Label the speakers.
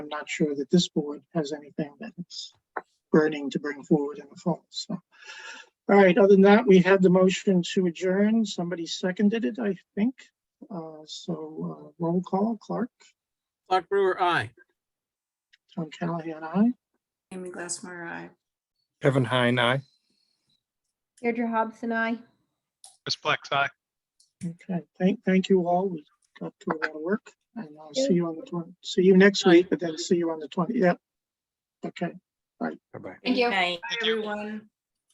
Speaker 1: not sure that this board has anything that it's burning to bring forward in the fall, so. All right, other than that, we had the motion to adjourn. Somebody seconded it, I think. Uh, so, uh, roll call, Clark,
Speaker 2: Clark Brewer, aye.
Speaker 1: Tom Callahan, aye.
Speaker 3: Amy Glassmeyer, aye.
Speaker 4: Kevin Heine, aye.
Speaker 5: Deirdre Hobbs and I.
Speaker 6: Chris Plex, aye.
Speaker 1: Okay, thank, thank you all. We got to a lot of work and I'll see you on the twenty, see you next week, but then see you on the twenty, yep. Okay.
Speaker 4: Bye-bye.
Speaker 3: Thank you.
Speaker 7: Night.
Speaker 3: Everyone.